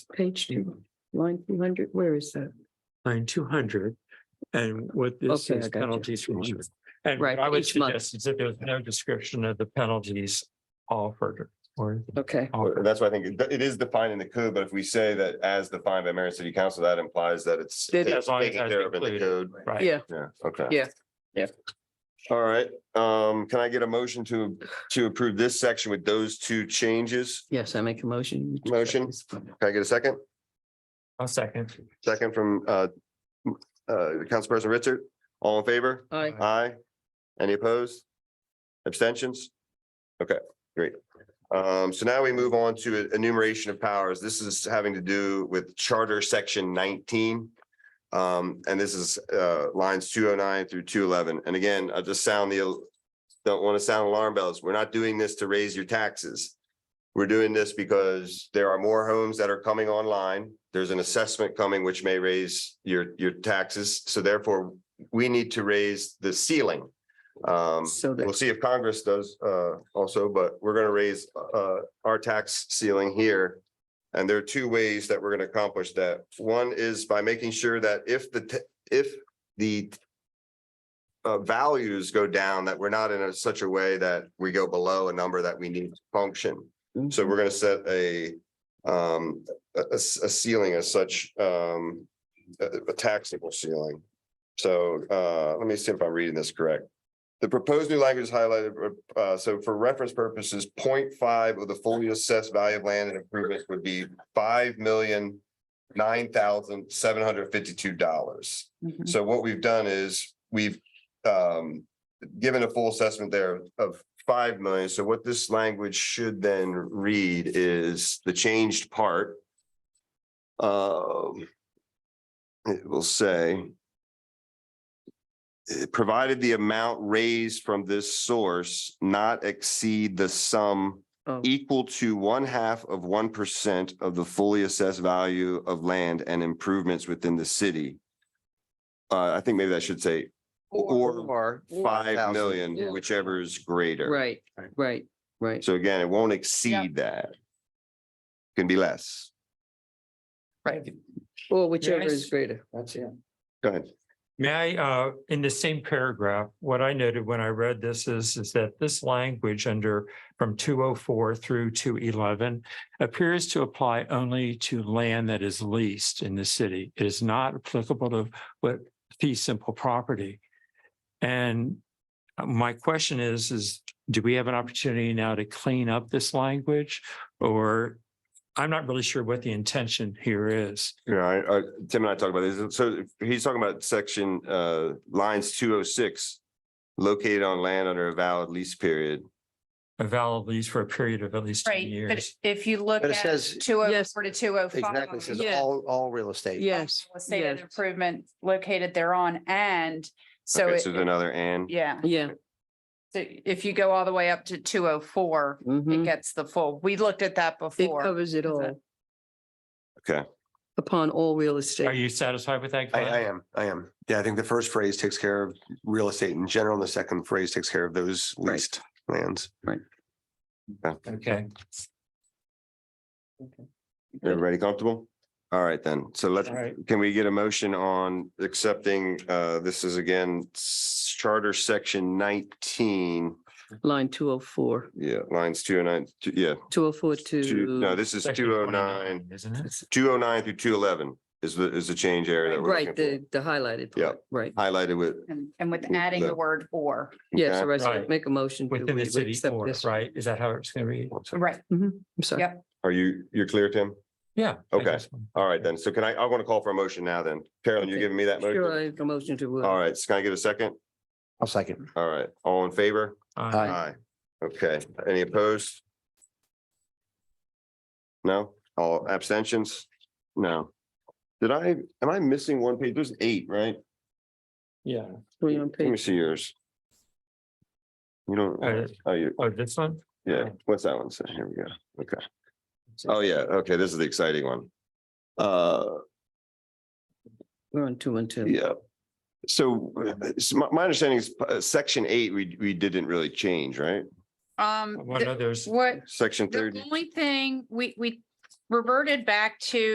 page two, line two hundred, where is that? line two hundred. And what this Okay, I is got you. penalties from. you. And Right, what I would each month. suggest is that there's no description of the penalties offered or. Okay, offered. That's why I think it- it is defined in the code, but if we say that as defined by Marion City Council, that implies that it's. That it- As long as taken that's care of in the included. code. Right. yeah, Yeah, okay. Yeah. Yeah. All right, um, can I get a motion to, to approve this section with those two changes? yes, I make a motion. Motion. Can I get a second? A second. Second from, uh, uh, Councilperson Richard, all in favor? Aye. Aye. Any opposed? Abstentions? Okay, great. Um, so now we move on to enumeration of powers. This is having to do with Charter Section nineteen. Um, and this is, uh, lines two oh nine through two eleven. And again, I just sound the, don't want to sound alarm bells. We're not doing this to raise your taxes. We're doing this because there are more homes that are coming online. There's an assessment coming which may raise your, your taxes. So therefore, we need to raise the ceiling. Um, So that- we'll see if Congress does, uh, also, but we're gonna raise, uh, our tax ceiling here. And there are two ways that we're gonna accomplish that. One is by making sure that if the, t- if the uh, values go down, that we're not in a- such a way that we go below a number that we need to function. So we're gonna set a, um, a, a- a ceiling as such, um, a a taxable ceiling. So, uh, let me see if I'm reading this correct. The proposed new language is highlighted, uh, so for reference purposes, 0.5 of the fully assessed value of land and improvements would be five million nine thousand seven hundred fifty-two dollars. Mhm. So what we've done is we've um given a full assessment there of five million. So what this language should then read is the changed part. Um it will say eh, provided the amount raised from this source not exceed the sum Oh, equal to one half of one percent of the fully assessed value of land and improvements within the city. Uh, I think maybe I should say, or five Yeah. million, whichever is greater. Right, right, right. So again, it won't exceed that. Can be less. Right. Or whichever Yes. is greater. That's it. Go ahead. May I, uh, in the same paragraph, what I noted when I read this is, is that this language under from two oh four through two eleven appears to apply only to land that is leased in the city. It is not applicable to what fee simple property. And uh, my question is, is do we have an opportunity now to clean up this language? Or I'm not really sure what the intention here is. Yeah, I- I- Tim and I talked about this. So he's talking about section, uh, lines two oh six. Located on land under a valid lease period. A valid lease for a period of at least ten Right, but years. if you look But it at says, two oh Yes. four to two oh five. exactly, it says Yeah. all, all real estate. Yes, State yes, of improvement located thereon and so Okay, it, So um, there's another and. yeah. yeah. So if you go all the way up to two oh four, it mhm. gets the full. We looked at that It before. covers it Is that- all. Okay. Upon all real Are estate. you satisfied with that? I, Glenn? I am, I am. Yeah, I think the first phrase takes care of real estate in general, and the second phrase takes care of those Right. leased lands. Okay, Everybody comfortable? All right, then. So let's, All right. can we get a motion on accepting, uh, this is again, s- Charter Section nineteen. Line two oh four, Yeah, lines two oh nine, two- yeah, two oh four two, no, to, this is Section two oh nine, 29, Isn't it? two oh nine through two eleven is the, is the change area that we're right, looking the, the highlighted Yeah. part, right. for. Highlighted with. And, and with adding the Okay. word or, Yes, okay. so I said Right. make a motion. to Within we- we the city accept or, this. right? Is that how it's gonna read? right, I'm sorry. Yep. Are you, you're clear, Tim? Yeah. Okay. All right, then. So can I, I want to call for a motion now then. Carolyn, you're Okay. giving me that Sure, motion? I make a motion to. uh, All right, so can I get a second? I'll second. All right, all in favor? Uh, Aye. Okay, any opposed? No, all abstentions? No. Did I, am I missing one page? There's eight, right? Yeah. Three on Let me page, see yours. You Uh, don't, oh, you, Oh, this one? yeah, what's that one? So here we go. Okay. Oh, yeah, okay, this is the exciting one. Uh, we're on two and two. yeah. So uh, so my, my understanding is, uh, section eight, we, we didn't really change, right? um, What the- others? what, Section the thirty. only thing, we, we reverted back to